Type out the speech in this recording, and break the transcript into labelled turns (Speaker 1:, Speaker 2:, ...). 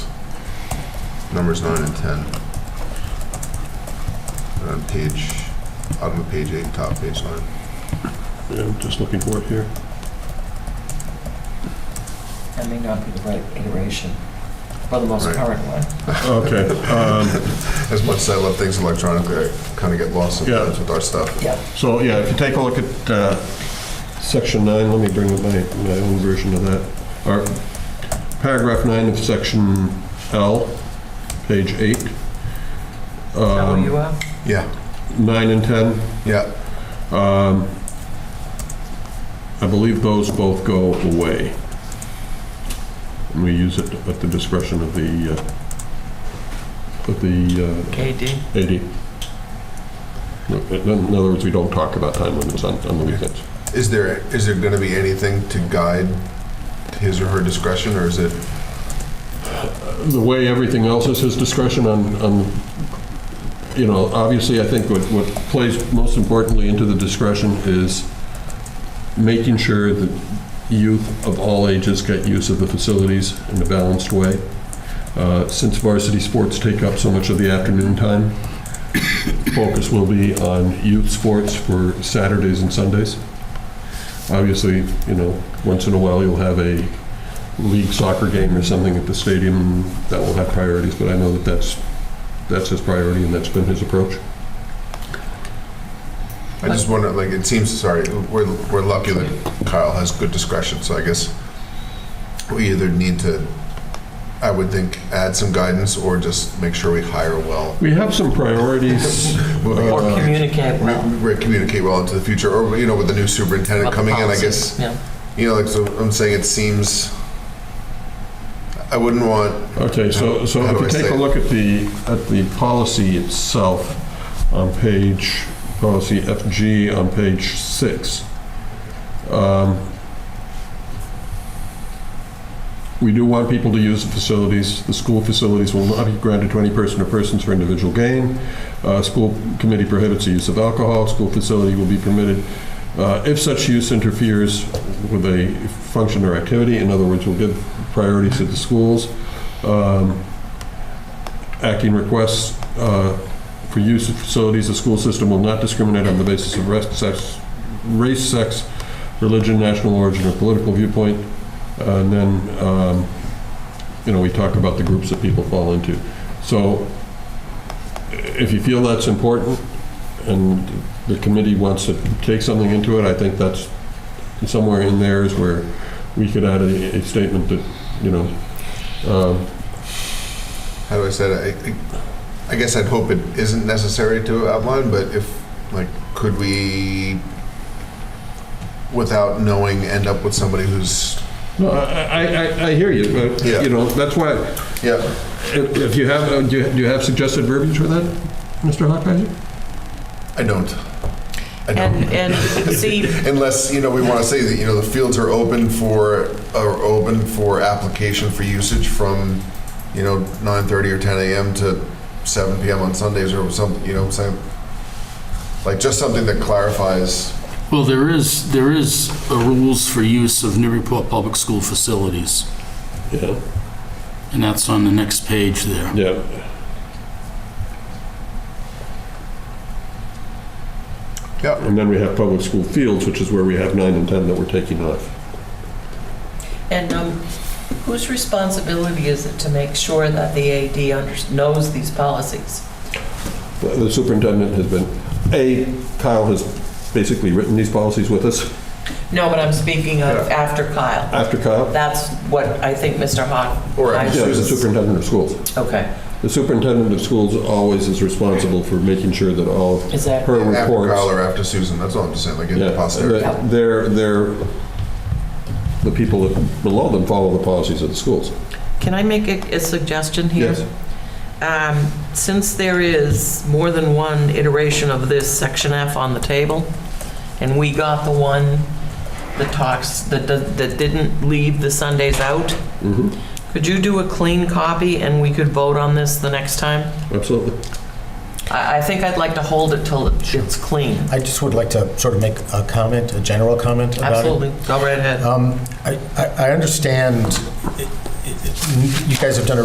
Speaker 1: numbers nine and 10. And On page, bottom of page eight, top of page nine.
Speaker 2: Yeah, I'm just looking for it here.
Speaker 3: That may not be the right iteration, or the most
Speaker 1: Right.
Speaker 3: current one.
Speaker 2: Okay, um,
Speaker 1: As much as I love things electronically, I kind of get lost sometimes
Speaker 2: Yeah.
Speaker 1: with our stuff.
Speaker 3: Yep.
Speaker 2: so, yeah, if you take a look at uh, section nine, let me bring up my, my own version of that. Or paragraph nine of section L, page eight.
Speaker 3: Is that where you
Speaker 2: Um,
Speaker 3: are?
Speaker 1: Yeah,
Speaker 2: Nine and 10,
Speaker 1: yeah,
Speaker 2: um, I believe those both go away. And we use it at the discretion of the, uh, of the uh,
Speaker 3: KD?
Speaker 2: AD. No, In in other words, we don't talk about time limits on, on the weekends.
Speaker 1: is there, is there going to be anything to guide his or her discretion, or is it,
Speaker 2: The way everything else is his discretion on, on, you know, obviously, I think what, what plays most importantly into the discretion is making sure that youth of all ages get use of the facilities in a balanced way. Uh, Since varsity sports take up so much of the afternoon time, focus will be on youth sports for Saturdays and Sundays. Obviously, you know, once in a while, you'll have a league soccer game or something at the stadium, that will have priorities, but I know that that's, that's his priority and that's been his approach.
Speaker 1: I just wonder, like, it seems, sorry, we're, we're lucky that Kyle has good discretion, so I guess we either need to, I would think, add some guidance, or just make sure we hire well.
Speaker 2: We have some priorities.
Speaker 1: Moving
Speaker 3: Or
Speaker 2: Uh,
Speaker 1: on.
Speaker 3: communicate
Speaker 1: We-
Speaker 3: well.
Speaker 1: we communicate well into the future, or, you know, with the new superintendent
Speaker 3: about the
Speaker 1: coming in, I
Speaker 3: policies.
Speaker 1: guess,
Speaker 3: Yeah,
Speaker 1: you know, like, so I'm saying it seems, I wouldn't want,
Speaker 2: Okay, so, so
Speaker 1: How
Speaker 2: if
Speaker 1: do I
Speaker 2: you
Speaker 1: say
Speaker 2: take a
Speaker 1: it?
Speaker 2: look at the, at the policy itself on page, policy FG on page six, um, we do want people to use the facilities. The school facilities will not be granted to any person or persons for individual gain. Uh, School committee prohibits the use of alcohol. School facility will be permitted uh, if such use interferes with a function or activity. In other words, we'll give priority to the schools. Um, Acting requests uh, for use of facilities, the school system will not discriminate on the basis of rest, sex, race, sex, religion, national origin, or political viewpoint. Uh, And then, um, you know, we talk about the groups that people fall into. So if you feel that's important and the committee wants to take something into it, I think that's somewhere in there is where we could add a, a statement that, you know, um,
Speaker 1: how do I say that? I- I I guess I'd hope it isn't necessary to outline, but if, like, could we, without knowing, end up with somebody who's
Speaker 2: no, I, I, I- I hear you, but,
Speaker 1: Yeah.
Speaker 2: you know, that's why,
Speaker 1: Yeah,
Speaker 2: if if you have, uh, do you- do you have suggested verbiage for that, Mr. Hockeiser?
Speaker 1: I don't. I
Speaker 4: And,
Speaker 1: don't.
Speaker 4: and see,
Speaker 1: Unless, you know, we want to say that, you know, the fields are open for, are open for application for usage from, you know, 9:30 or 10 a.m. to 7 p.m. on Sundays or something, you know what I'm saying? Like, just something that clarifies,
Speaker 5: Well, there is, there is a rules for use of Newburyport Public School facilities,
Speaker 2: Yeah,
Speaker 5: and that's on the next page there.
Speaker 2: yeah.
Speaker 1: yeah,
Speaker 2: And then we have public school fields, which is where we have nine and 10 that we're taking off.
Speaker 4: and um, whose responsibility is it to make sure that the AD under- knows these policies?
Speaker 2: The superintendent has been, A, Kyle has basically written these policies with us,
Speaker 4: No, but I'm speaking of after Kyle.
Speaker 2: after Kyle.
Speaker 4: That's what I think Mr. Hawk.
Speaker 1: Or after
Speaker 2: Yeah, the superintendent of schools.
Speaker 4: Okay,
Speaker 2: The superintendent of schools always is responsible for making sure that all of
Speaker 4: is that,
Speaker 2: her
Speaker 1: after Kyle
Speaker 2: reports.
Speaker 1: or after Susan, that's all I'm just saying, like, in
Speaker 2: Yeah,
Speaker 1: posterity.
Speaker 2: that They're, they're, the people that below them follow the policies of the schools.
Speaker 4: can I make a a suggestion here?
Speaker 2: Yes.
Speaker 4: Um, Since there is more than one iteration of this Section F on the table, and we got the one that talks, that that that didn't leave the Sundays out,
Speaker 2: Mhm,
Speaker 4: could you do a clean copy and we could vote on this the next time?
Speaker 2: Absolutely.
Speaker 4: I I think I'd like to hold it till it's clean.
Speaker 6: I just would like to sort of make a comment, a general comment about it.
Speaker 4: Absolutely, go right ahead.
Speaker 6: Um, I I- I understand, it- it- you guys have done a